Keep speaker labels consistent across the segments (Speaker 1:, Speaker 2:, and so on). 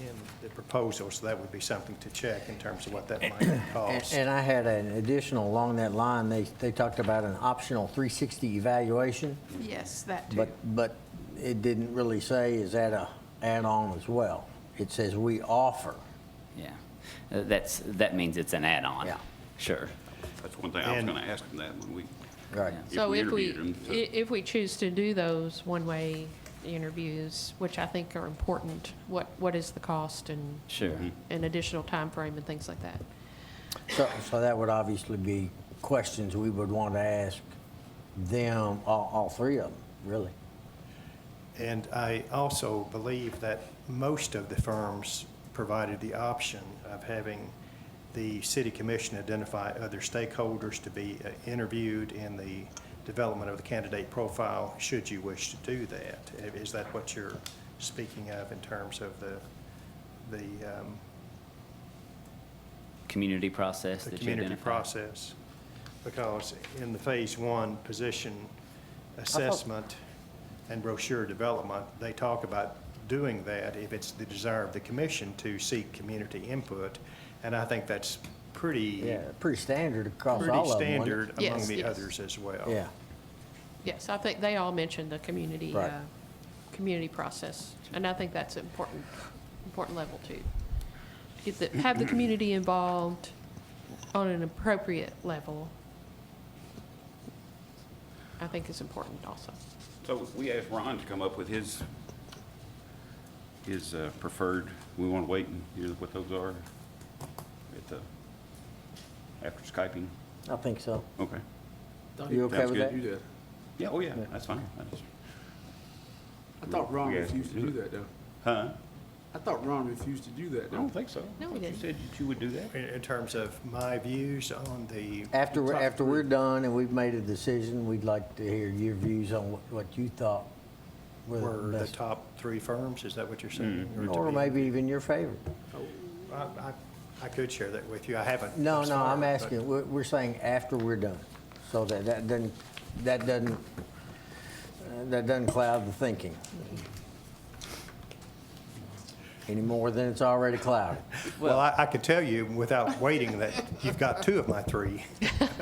Speaker 1: in the proposal, so that would be something to check in terms of what that might
Speaker 2: And-
Speaker 1: cost.
Speaker 2: And I had an additional along that line, they, they talked about an optional 360 evaluation,
Speaker 3: Yes, that too.
Speaker 2: but, but it didn't really say, is that a add-on as well? It says we offer.
Speaker 4: Yeah, Uh, that's, that means it's an add-on.
Speaker 2: Yeah.
Speaker 4: Sure.
Speaker 5: That's one thing I was
Speaker 1: And-
Speaker 5: going to ask him that when we,
Speaker 2: Right.
Speaker 4: Yeah.
Speaker 6: So
Speaker 5: we
Speaker 6: if we,
Speaker 5: interviewed him, so-
Speaker 6: i- if we choose to do those one-way interviews, which I think are important, what, what is the cost and?
Speaker 4: Sure. Mhm.
Speaker 6: And additional time frame and things like that.
Speaker 2: So, so that would obviously be questions we would want to ask them, all, all three of them, really.
Speaker 1: And I also believe that most of the firms provided the option of having the city commission identify other stakeholders to be uh, interviewed in the development of the candidate profile, should you wish to do that. I- Is that what you're speaking of in terms of the, the, um,
Speaker 4: Community process
Speaker 1: the
Speaker 4: that you
Speaker 1: community
Speaker 4: identify.
Speaker 1: process? Because in the phase one position assessment and brochure development, they talk about doing that if it's the desire of the commission to seek community input. And I think that's pretty,
Speaker 2: Yeah, pretty standard across
Speaker 1: pretty
Speaker 2: all of them. wasn't it?
Speaker 1: standard among
Speaker 6: Yes,
Speaker 1: the
Speaker 6: yes.
Speaker 1: others as well.
Speaker 2: Yeah,
Speaker 6: Yes, I think they all mentioned the community,
Speaker 2: Right.
Speaker 6: uh, community process, and I think that's important, important level too. Get the, have the community involved on an appropriate level, I think is important also.
Speaker 5: so we asked Ron to come up with his, his uh, preferred, we want to wait and hear what those are at the, after Skyping.
Speaker 2: I think so.
Speaker 5: Okay.
Speaker 2: You okay
Speaker 5: Sounds
Speaker 2: with
Speaker 5: good.
Speaker 2: that?
Speaker 7: do that.
Speaker 5: Yeah, oh yeah, that's fine. I just-
Speaker 7: I thought Ron
Speaker 5: Yeah.
Speaker 7: refused to do that, though.
Speaker 5: Huh?
Speaker 7: I thought Ron refused to do
Speaker 5: I
Speaker 7: that, though.
Speaker 5: don't think so.
Speaker 6: No, we
Speaker 5: I thought
Speaker 6: didn't.
Speaker 5: You said that you would do that?
Speaker 1: In, in terms of my views on the.
Speaker 2: After, we're-
Speaker 1: top
Speaker 2: after
Speaker 1: three.
Speaker 2: we're done and we've made a decision, we'd like to hear your views on what- what you thought were
Speaker 1: Were
Speaker 2: the
Speaker 1: the
Speaker 2: best.
Speaker 1: top three firms, is that what you're saying? to
Speaker 2: Mm-hmm. Or
Speaker 1: be-
Speaker 2: maybe even your favorite.
Speaker 1: I, I, I could share that with you, I haven't.
Speaker 2: No,
Speaker 1: thus
Speaker 2: no,
Speaker 1: far,
Speaker 2: I'm
Speaker 1: but-
Speaker 2: asking, we're, we're saying after we're done. So that, that doesn't, that doesn't, uh, that doesn't cloud the thinking. Any more than it's already clouded.
Speaker 1: Well, I, I could tell you without waiting that you've got two of my three.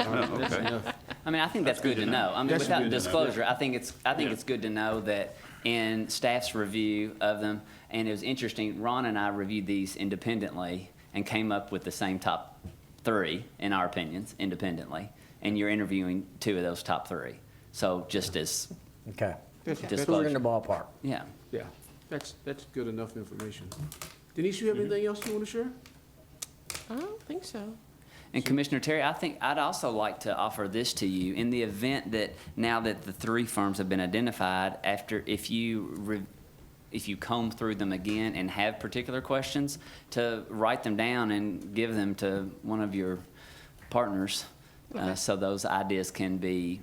Speaker 5: Oh, okay.
Speaker 4: I mean, I think that's good to know. I mean,
Speaker 5: That's
Speaker 4: without
Speaker 5: good to know.
Speaker 4: disclosure, I think it's, I think
Speaker 5: Yeah.
Speaker 4: it's good to know that in staff's review of them, and it was interesting, Ron and I reviewed these independently and came up with the same top three, in our opinions, independently, and you're interviewing two of those top three. So just as
Speaker 2: Okay.
Speaker 4: Just-
Speaker 2: So we're in the ballpark.
Speaker 4: Yeah.
Speaker 7: Yeah, that's, that's good enough information. Denise, you have
Speaker 5: Mm-hmm.
Speaker 7: anything else you want to share?
Speaker 6: I don't think so.
Speaker 4: And Commissioner Terry, I think I'd also like to offer this to you. In the event that, now that the three firms have been identified, after, if you, re- if you comb through them again and have particular questions, to write them down and give them to one of your partners, uh,
Speaker 6: Okay.
Speaker 4: so those ideas can be,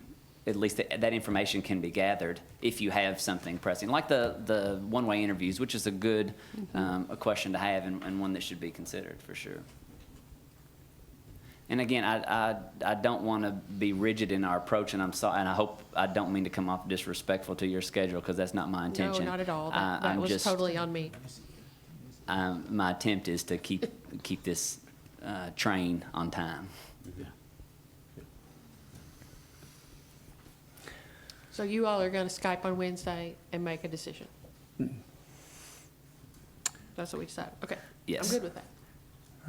Speaker 4: at least that, that information can be gathered if you have something pressing, like the, the one-way interviews, which is a good, um, a question to have and, and one that should be considered, for sure. And again, I, I, I don't want to be rigid in our approach, and I'm sorry, and I hope, I don't mean to come off disrespectful to your schedule, because that's not my intention.
Speaker 6: No, not at all.
Speaker 4: I-
Speaker 6: That, that
Speaker 4: Uh, I'm
Speaker 6: was
Speaker 4: just-
Speaker 6: totally on me.
Speaker 4: um, My attempt is to keep, keep this uh, train on time.
Speaker 6: So you all are going to Skype on Wednesday and make a decision? That's what we decided, okay.
Speaker 4: Yes.
Speaker 6: I'm good with that.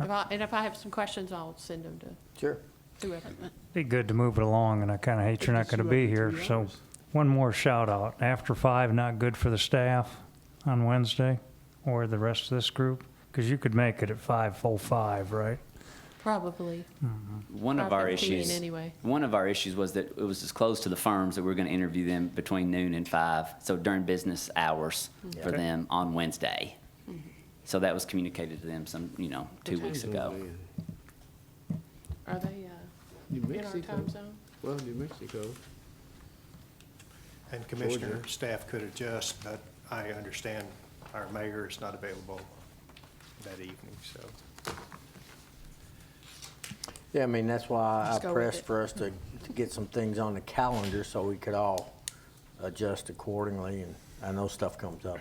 Speaker 6: If I- And if I have some questions, I'll send them to
Speaker 2: Sure.
Speaker 6: whoever.
Speaker 8: Be good to move it along, and I kind of hate you're not
Speaker 7: Just
Speaker 8: going to
Speaker 7: you
Speaker 8: be
Speaker 7: have
Speaker 8: here.
Speaker 7: three
Speaker 8: So,
Speaker 7: hours.
Speaker 8: one more shout out. After five, not good for the staff on Wednesday or the rest of this group, because you could make it at five full five, right?
Speaker 6: Probably.
Speaker 4: One of
Speaker 6: Five
Speaker 4: our
Speaker 6: fifteen
Speaker 4: issues.
Speaker 6: anyway.
Speaker 4: One of our issues was that it was disclosed to the firms that we were going to interview them between noon and five, so during business hours
Speaker 6: Mm-hmm.
Speaker 4: for them on Wednesday. So that was communicated to them some, you know, two weeks ago.
Speaker 6: Are they uh,
Speaker 7: New
Speaker 6: in our
Speaker 7: Mexico.
Speaker 6: time zone?
Speaker 7: Well, New Mexico.
Speaker 1: And Commissioner, staff could adjust, but I understand our mayor is not available that evening, so.
Speaker 2: Yeah, I mean, that's why I
Speaker 6: Let's go with
Speaker 2: pressed
Speaker 6: it.
Speaker 2: for us to, to get some things on the calendar so we could all adjust accordingly. And I know stuff comes up.